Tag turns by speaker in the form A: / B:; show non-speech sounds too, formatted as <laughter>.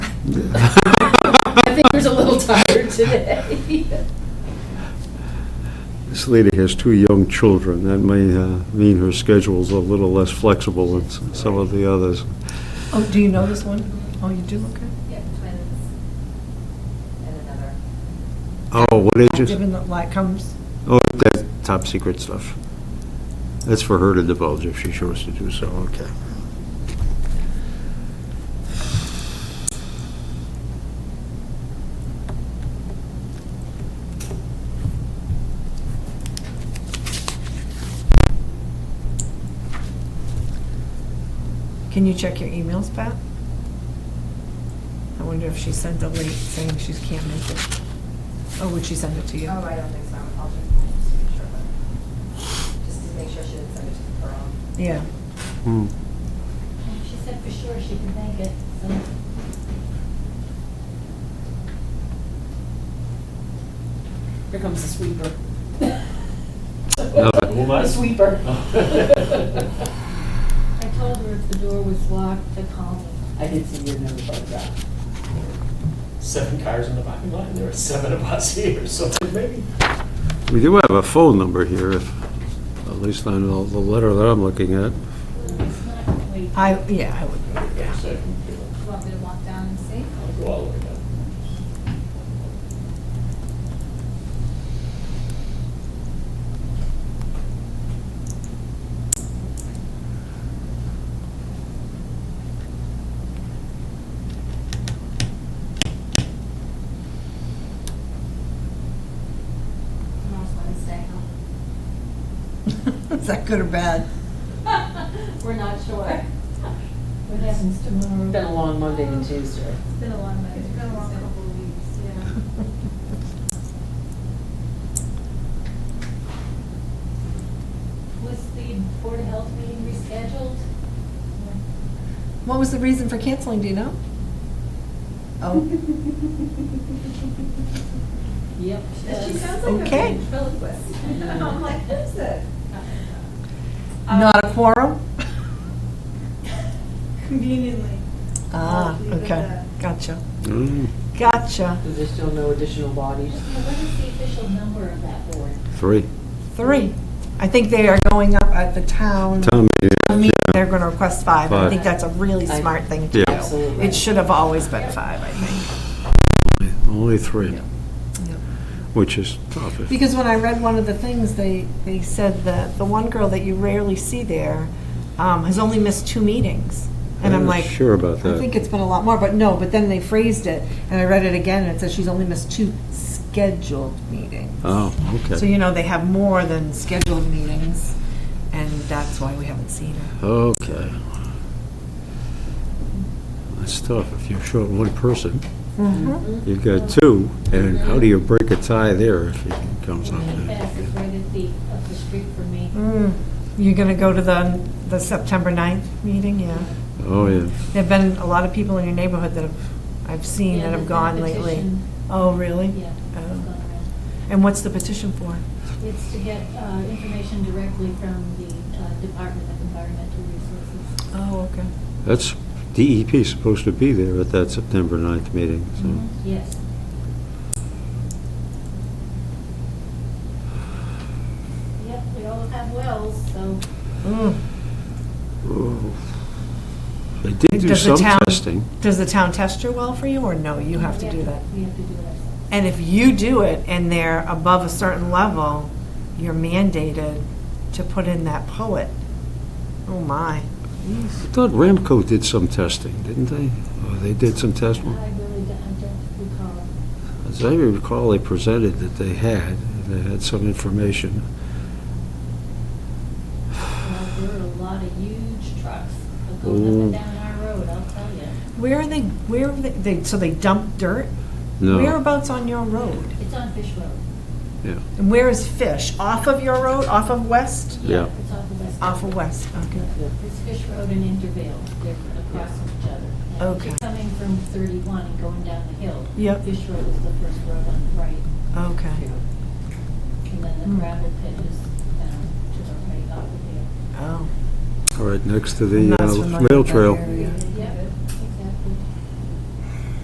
A: <laughs>
B: I think I was a little
C: <laughs>
B: tired today.
D: This lady has two young children. That may uh, mean her schedule's a little less flexible than s- some of the others.
A: Oh, do you know this one? Oh, you do, okay.
C: Yeah, twins and another.
D: Oh, what ages?
A: Given that light comes,
D: Oh, that top secret stuff. That's for her to divulge if she chose to do so, okay.
A: can you check your emails, Pat? I wonder if she sent a link saying she can't make it. Or would she send it to you?
C: Oh, I don't think so. I'll check mine just to make sure, but, just to make sure she didn't send it to her own.
A: Yeah.
D: Hmm.
C: She said for sure she can make it, so.
B: Here comes the sweeper.
D: Another-
E: Who am I?
B: The sweeper.
C: I told her if the door was locked to call me.
B: I did see your number photograph.
E: <laughs> Seven cars in the parking lot, and there were seven of us <laughs> here, so maybe.
D: We do have a phone number here, if, at least on the the letter that I'm looking at.
C: It's not, wait,
A: I, yeah, <laughs> I would.
C: you want me to walk down and see?
E: I'll go all the way down.
C: Tomorrow's Wednesday,
A: Is that good or bad? <laughs>
C: huh? <laughs> We're not sure. What happens
B: It's been
C: tomorrow?
B: a long Monday and Tuesday.
C: It's been a long night. It's been a long couple of weeks, yeah. Was the Board of Health meeting rescheduled?
A: What was the reason for canceling, do you know? Oh,
C: <laughs>
B: Yep.
C: She sounds
A: like a Okay.
C: <laughs> ventriloquist.
B: I'm like,
C: who's it?
A: not a quorum?
F: Conveniently.
C: Oh,
A: Ah,
F: Leave it at
A: okay,
F: that.
A: gotcha,
D: Hmm,
A: gotcha.
B: Is there still no additional bodies?
C: What is the official number of that board?
D: Three.
A: Three. I think they are going up at the town.
D: Tom,
A: I mean, they're going to request five. I
D: Five.
A: think that's a really
B: I-
A: smart thing to
D: Yeah.
A: do.
B: Absolutely.
A: It should have always been five, I think.
D: only three,
A: Yeah.
D: which is tough. if-
A: Because when I read one of the things, they, they said that the one girl that you rarely see there um, has only missed two meetings. And I'm
D: not
A: like,
D: Sure about
A: I think
D: that.
A: it's been a lot more, but no, but then they phrased it, and I read it again, and it says she's only missed two scheduled meetings.
D: Oh,
A: So,
D: okay,
A: you know, they have more than scheduled meetings, and that's why we haven't seen her.
D: okay. That's tough, if you're short one person.
B: Mm-hmm.
D: You've got two, and how do you break a tie there if it comes up?
C: And the fastest
D: there?
C: right at the, up the street from me.
A: Mm, You're going to go to the, the September 9th meeting, yeah?
D: Oh, yeah.
A: There've been a lot of people in your neighborhood that have, I've seen
C: Yeah,
A: that have
C: the
A: gone lately.
C: petition.
A: Oh, really?
C: Yeah. it's
A: Oh.
C: gone around.
A: And what's the petition for?
C: It's to get uh, information directly from the uh, Department of Environmental Resources.
A: Oh, okay.
D: That's, DEP is supposed to be there at that September 9th meeting, so.
C: Yes. Yep, we all have wells, so
A: Mm.
D: Oh. They did do
A: Mm-hmm. Does
D: some
A: the town-
D: testing.
A: Does the town test your well for you, or no, you have to
C: we
A: do that?
C: We have to do it ourselves.
A: And if you do it and they're above a certain level, you're mandated to put in that poet. Oh, my.
D: I thought Ramco did some testing, didn't they? Oh, they did some testing.
C: I really don't, I don't recall.
D: As I recall, they presented that they had, and they had some information.
C: Well, There are a lot of huge trucks going up and
D: Ooh.
C: down our road, I'll tell you.
A: Where are they, where, are they- they, so they dump dirt?
D: No,
A: Whereabouts on your road?
C: It's on Fish Road.
D: yeah,
A: And where is Fish? Off of your road, off of West?
D: Yeah.
C: It's off of West.
A: Off of West, okay.
C: It's Fish Road and Intervale, they're across from each other. And if you're
A: Okay.
C: Coming from 31 and going down the hill.
A: Yep.
C: Fish Road is the first road on the right,
A: Okay,
C: and then
A: Hmm.
C: the gravel pit is um, down to the right off of
A: oh.
D: all right, next to
A: I'm
D: the
A: not familiar
D: uh,
A: with
D: rail
A: that
D: trail.
A: area.
C: there.